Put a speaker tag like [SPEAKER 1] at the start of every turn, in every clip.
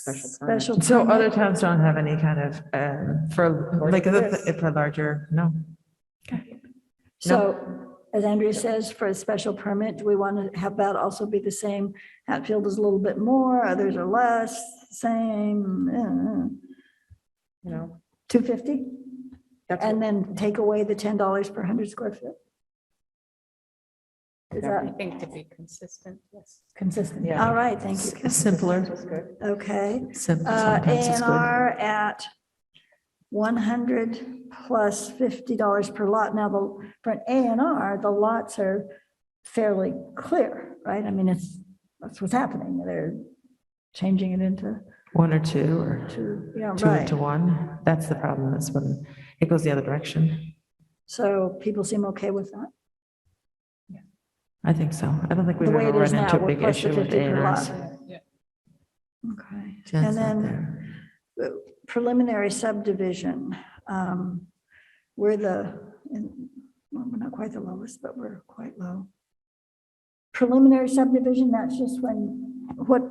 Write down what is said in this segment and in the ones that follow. [SPEAKER 1] special permit.
[SPEAKER 2] Special.
[SPEAKER 3] So
[SPEAKER 2] permit.
[SPEAKER 3] other towns don't have any kind of, uh, for,
[SPEAKER 1] Or
[SPEAKER 3] like,
[SPEAKER 1] this.
[SPEAKER 3] for larger, no?
[SPEAKER 2] So as Andrea says, for a special permit, do we want to have that also be the same? Hatfield is a little bit more, others are less, same,
[SPEAKER 1] You know,
[SPEAKER 2] two fifty?
[SPEAKER 1] that's,
[SPEAKER 2] And
[SPEAKER 1] what-
[SPEAKER 2] then take away the ten dollars per hundred square foot? Is
[SPEAKER 4] I
[SPEAKER 2] that
[SPEAKER 4] think to be consistent, yes.
[SPEAKER 2] consistent?
[SPEAKER 3] Yeah.
[SPEAKER 2] All right, thank you.
[SPEAKER 3] Simpler,
[SPEAKER 2] Okay.
[SPEAKER 3] simple,
[SPEAKER 2] Uh, A
[SPEAKER 3] sometimes it's
[SPEAKER 2] and
[SPEAKER 3] good.
[SPEAKER 2] R at one hundred plus fifty dollars per lot. Now, the, for an A and R, the lots are fairly clear, right? I mean, it's, that's what's happening. They're changing it into
[SPEAKER 3] One or two, or
[SPEAKER 2] two, yeah,
[SPEAKER 3] two
[SPEAKER 2] right.
[SPEAKER 3] to one, that's the problem, that's when it goes the other direction.
[SPEAKER 2] So people seem okay with that.
[SPEAKER 3] I think so, I don't think
[SPEAKER 2] The
[SPEAKER 3] we've
[SPEAKER 2] way
[SPEAKER 3] ever
[SPEAKER 2] it is now,
[SPEAKER 3] run into a
[SPEAKER 2] we're
[SPEAKER 3] big
[SPEAKER 2] plus the
[SPEAKER 3] issue with
[SPEAKER 2] 50
[SPEAKER 3] A
[SPEAKER 2] per
[SPEAKER 3] and Rs.
[SPEAKER 2] lot. Okay. And then preliminary subdivision. um, We're the, in- well, we're not quite the lowest, but we're quite low. Preliminary subdivision, that's just when, what,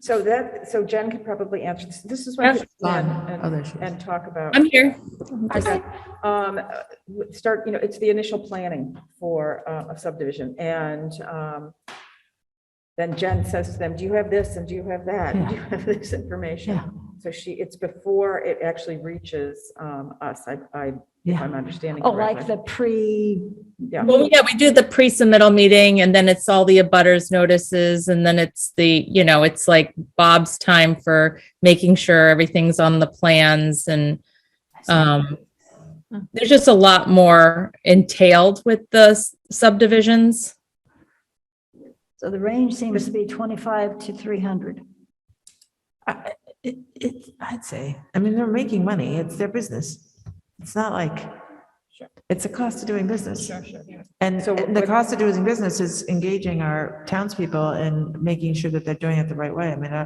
[SPEAKER 1] so that, so Jen can probably answer this. This is when.
[SPEAKER 3] Gone. Other
[SPEAKER 1] And
[SPEAKER 3] issues.
[SPEAKER 1] and talk about.
[SPEAKER 4] I'm here.
[SPEAKER 1] Okay. Um, uh, w- start, you know, it's the initial planning for uh, a subdivision and, um, then Jen says to them, do you have this and do you have that? and Do you have this
[SPEAKER 3] Yeah.
[SPEAKER 1] information? So she, it's before it actually reaches, um, us, I, I, if
[SPEAKER 3] Yeah,
[SPEAKER 1] I'm understanding
[SPEAKER 2] oh, like
[SPEAKER 1] correctly.
[SPEAKER 2] the pre,
[SPEAKER 1] Yeah.
[SPEAKER 5] Well, yeah, we do the pre-submittal meeting and then it's all the abutters notices and then it's the, you know, it's like Bob's time for making sure everything's on the plans and um there's just a lot more entailed with the s- subdivisions.
[SPEAKER 2] so the range seems to be 25 to 300.
[SPEAKER 3] I- it, it, I'd say, I mean, they're making money, it's their business, it's not like, it's a cost of doing business. And
[SPEAKER 1] So
[SPEAKER 3] and the
[SPEAKER 1] what-
[SPEAKER 3] cost of doing business is engaging our townspeople and making sure that they're doing it the right way. I mean, I,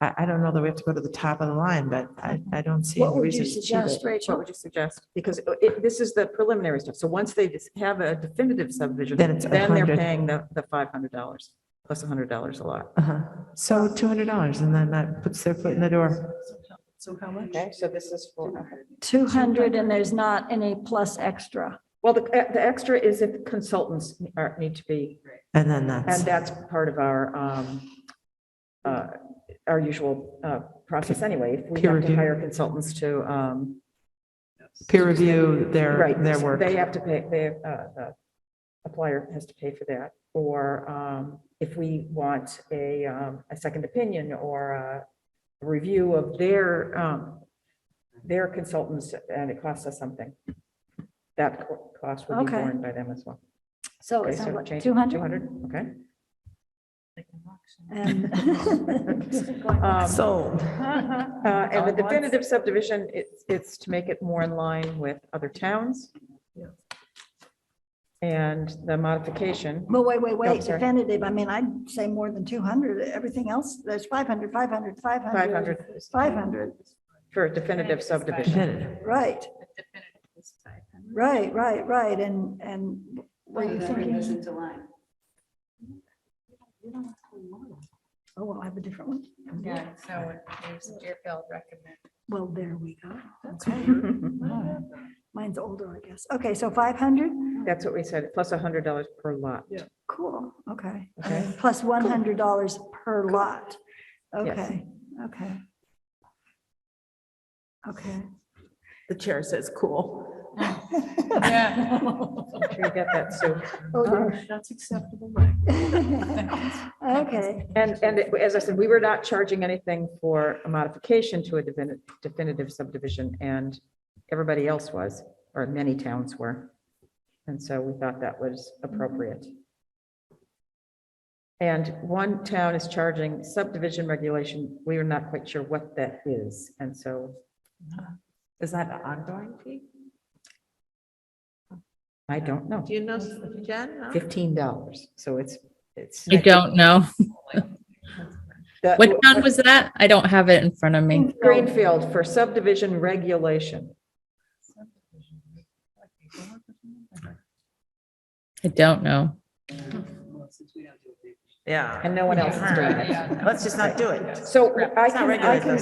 [SPEAKER 3] I I don't know that we have to go to the top of the line, but I, I don't see
[SPEAKER 2] What
[SPEAKER 3] any
[SPEAKER 2] would you
[SPEAKER 3] reason to cheat
[SPEAKER 2] suggest,
[SPEAKER 3] it.
[SPEAKER 1] What
[SPEAKER 2] Rachel?
[SPEAKER 1] would you suggest? Because it, this is the preliminary stuff. So once they just have a definitive subdivision,
[SPEAKER 3] Then it's
[SPEAKER 1] then they're
[SPEAKER 3] 100.
[SPEAKER 1] paying the, the five hundred dollars plus a hundred dollars a lot.
[SPEAKER 3] Uh-huh. So two hundred dollars and then that puts their foot in the door.
[SPEAKER 1] Okay, so this is for.
[SPEAKER 2] 200 and there's not any plus extra.
[SPEAKER 1] Well, the, the extra is if consultants are, need to be,
[SPEAKER 3] And then
[SPEAKER 1] and uh,
[SPEAKER 3] that's,
[SPEAKER 1] that's part of our, um, uh, our usual, uh, process anyway. If We
[SPEAKER 3] Peer
[SPEAKER 1] have to
[SPEAKER 3] review.
[SPEAKER 1] hire consultants to, um,
[SPEAKER 3] peer review their,
[SPEAKER 1] right.
[SPEAKER 3] their
[SPEAKER 1] so
[SPEAKER 3] work.
[SPEAKER 1] They have to pay, they, uh, the applier has to pay for that. Or, um, if we want a, um, a second opinion or a review of their, um, their consultants and it costs us something. That co- cost will be
[SPEAKER 2] Okay.
[SPEAKER 1] borne by them as well.
[SPEAKER 2] So
[SPEAKER 1] Okay,
[SPEAKER 2] it's
[SPEAKER 1] so
[SPEAKER 2] not like
[SPEAKER 1] change
[SPEAKER 2] 200.
[SPEAKER 1] 200, okay.
[SPEAKER 2] And-
[SPEAKER 1] Um,
[SPEAKER 3] Sold.
[SPEAKER 1] uh, And the definitive subdivision, it's, it's to make it more in line with other towns. And the modification,
[SPEAKER 2] Well, wait, wait, wait,
[SPEAKER 1] sorry.
[SPEAKER 2] definitive, I mean, I'd say more than 200, everything else, there's 500, 500, 500,
[SPEAKER 1] 500
[SPEAKER 2] 500,
[SPEAKER 1] for a definitive subdivision.
[SPEAKER 2] right, right, right, right, and, and were you thinking? Oh, well, I have a different one.
[SPEAKER 4] Yeah, so there's Deerfield recommend.
[SPEAKER 2] Well, there we go, okay. Wow. Mine's older, I guess. Okay, so 500,
[SPEAKER 1] That's what we said, plus $100 per lot.
[SPEAKER 2] cool, okay.
[SPEAKER 1] Okay.
[SPEAKER 2] Plus $100 per lot.
[SPEAKER 1] Yes.
[SPEAKER 2] Okay, okay. Okay.
[SPEAKER 3] The chair says, cool.
[SPEAKER 4] Yeah.
[SPEAKER 1] Make sure you get that, Sue.
[SPEAKER 2] Oh, dear.
[SPEAKER 4] That's acceptable.
[SPEAKER 2] Okay,
[SPEAKER 1] And, and it- as I said, we were not charging anything for a modification to a defini- definitive subdivision, and everybody else was, or many towns were. And so we thought that was appropriate. And one town is charging subdivision regulation, we are not quite sure what that is, and so
[SPEAKER 3] Is that an ongoing fee?
[SPEAKER 1] I don't know.
[SPEAKER 3] Do you know, Jen? no?
[SPEAKER 1] Fifteen dollars, so it's, it's.
[SPEAKER 5] I don't know.
[SPEAKER 1] The-
[SPEAKER 5] What town was that? I don't have it in front of me.
[SPEAKER 1] Greenfield for subdivision regulation.
[SPEAKER 5] I don't know.
[SPEAKER 3] Yeah.
[SPEAKER 1] And no one else is doing it.
[SPEAKER 3] Let's just not do it.
[SPEAKER 1] So I
[SPEAKER 3] not
[SPEAKER 1] can, I
[SPEAKER 3] regulated,
[SPEAKER 1] can
[SPEAKER 3] though.